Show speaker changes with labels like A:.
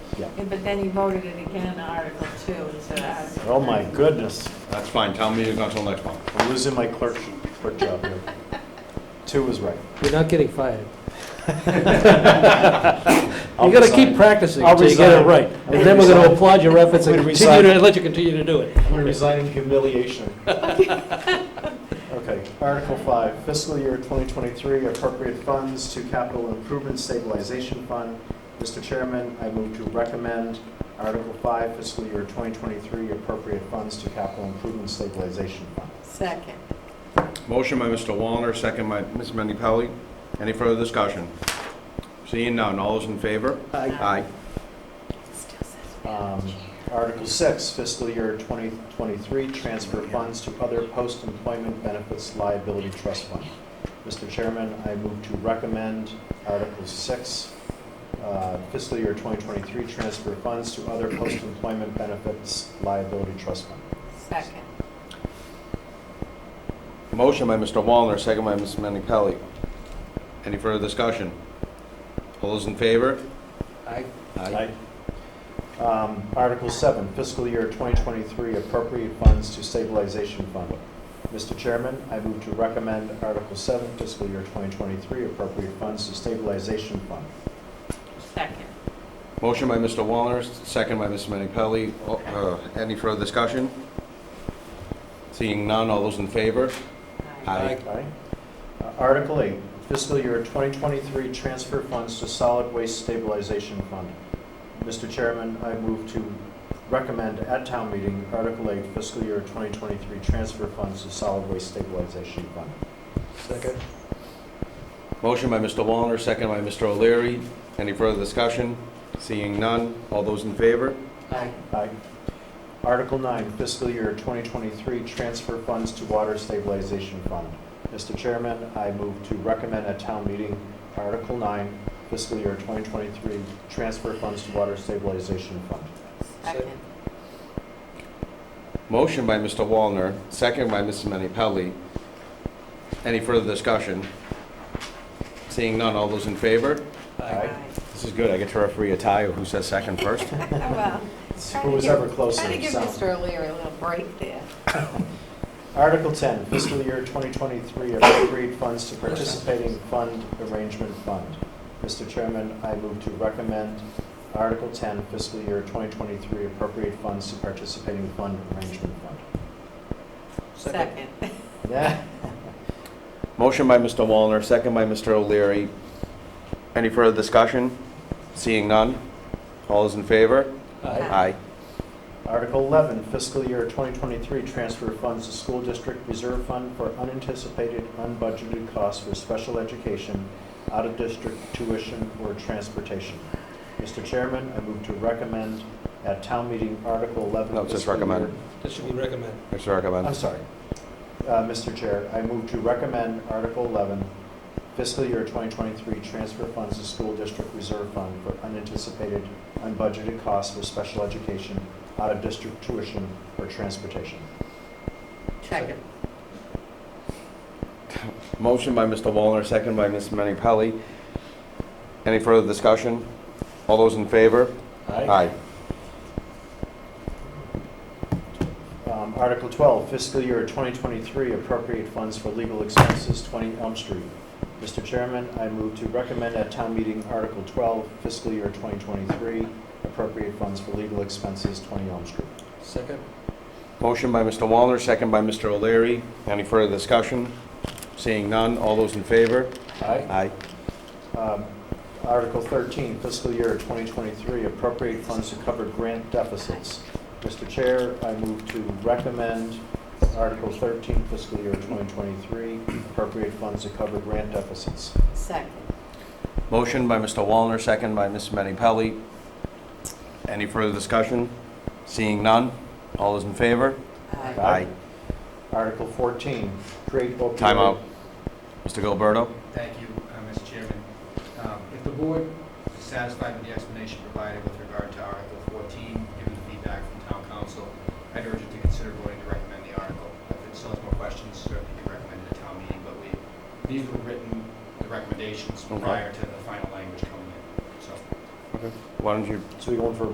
A: But then he voted it again, Article Two, and so that's.
B: Oh my goodness,
C: That's fine, town meeting's not till next month.
B: I'm losing my clerk, clerk job here. Two is right.
D: You're not getting fired.
B: I'll
D: You gotta
B: resign.
D: keep practicing
B: I'll
D: until you get it
B: resign.
D: right.
B: I'll
D: And then we're gonna
B: resign.
D: applaud your efforts and
B: I'm gonna
D: continue
B: resign.
D: to, let you continue to do it.
B: I'm gonna resign in humiliation. Okay, Article 5, fiscal year 2023, appropriate funds to capital improvement stabilization fund. Mr. Chairman, I move to recommend Article 5, fiscal year 2023, appropriate funds to capital improvement stabilization fund.
A: Second.
C: Motion by Mr. Wallner, second by Ms. Menni-Pelli. Any further discussion? Seeing none, all those in favor? Aye.
B: Um, Article 6, fiscal year 2023, transfer funds to other post-employment benefits liability trust fund. Mr. Chairman, I move to recommend Article 6, uh, fiscal year 2023, transfer funds to other post-employment benefits liability trust fund.
A: Second.
C: Motion by Mr. Wallner, second by Ms. Menni-Pelli. Any further discussion? All those in favor?
D: Aye.
B: Um, Article 7, fiscal year 2023, appropriate funds to stabilization fund. Mr. Chairman, I move to recommend Article 7, fiscal year 2023, appropriate funds to stabilization fund.
A: Second.
C: Motion by Mr. Wallner, second by Ms. Menni-Pelli. Oh, uh, Any further discussion? Seeing none, all those in favor? Aye.
B: Aye. Uh, Article 8, fiscal year 2023, transfer funds to solid waste stabilization fund. Mr. Chairman, I move to recommend at town meeting Article 8, fiscal year 2023, transfer funds to solid waste stabilization fund.
D: Second.
C: Motion by Mr. Wallner, second by Mr. O'Leary. Any further discussion? Seeing none, all those in favor?
D: Aye.
B: Aye. Article 9, fiscal year 2023, transfer funds to water stabilization fund. Mr. Chairman, I move to recommend at town meeting Article 9, fiscal year 2023, transfer funds to water stabilization fund.
A: Second.
C: Motion by Mr. Wallner, second by Mrs. Menni-Pelli. Any further discussion? Seeing none, all those in favor?
B: Aye.
C: This is good, I get to referee a tie of who says second first.
A: Well,
B: Who was ever closer?
A: Trying to give
B: so.
A: Mr. O'Leary a little break there.
B: Article 10, fiscal year 2023, appropriate funds to participating fund arrangement fund. Mr. Chairman, I move to recommend Article 10, fiscal year 2023, appropriate funds to participating fund arrangement fund.
A: Second.
B: Yeah.
C: Motion by Mr. Wallner, second by Mr. O'Leary. Any further discussion? Seeing none, all those in favor? Aye.
D: Aye.
B: Article 11, fiscal year 2023, transfer funds to school district reserve fund for unanticipated, unbudgeted costs for special education, out-of-district tuition, or transportation. Mr. Chairman, I move to recommend at town meeting Article 11.
C: No, just
B: fiscal year-
C: recommend.
D: That should be recommended.
C: Mr. Arkabon.
B: I'm sorry. Uh, Mr. Chair, I move to recommend Article 11, fiscal year 2023, transfer funds to school district reserve fund for unanticipated, unbudgeted costs for special education, out-of-district tuition, or transportation.
A: Second.
C: Motion by Mr. Wallner, second by Ms. Menni-Pelli. Any further discussion? All those in favor?
B: Um, Article 12, fiscal year 2023, appropriate funds for legal expenses, 20 Elm Street. Mr. Chairman, I move to recommend at town meeting Article 12, fiscal year 2023, appropriate funds for legal expenses, 20 Elm Street.
D: Second.
C: Motion by Mr. Wallner, second by Mr. O'Leary. Any further discussion? Seeing none, all those in favor?
B: Aye.
C: Aye.
B: Um, Article 13, fiscal year 2023, appropriate funds to cover grant deficits. Mr. Chair, I move to recommend Article 13, fiscal year 2023, appropriate funds to cover grant deficits.
A: Second.
C: Motion by Mr. Wallner, second by Ms. Menni-Pelli. Any further discussion? Seeing none, all those in favor?
A: Aye.
C: Aye.
B: Article 14, create opioid.
C: Time out. Mr. Gilberto?
E: Thank you, uh, Mr. Chairman. Um, If the board is satisfied with the explanation provided with regard to Article 14, given the feedback from town council, I'd urge you to consider voting to recommend the article. If it still has more questions, certainly you can recommend it at town meeting, but we, these were written, the recommendations
C: Okay.
E: prior to the final language coming in, so.
C: Why don't you
B: So we going for a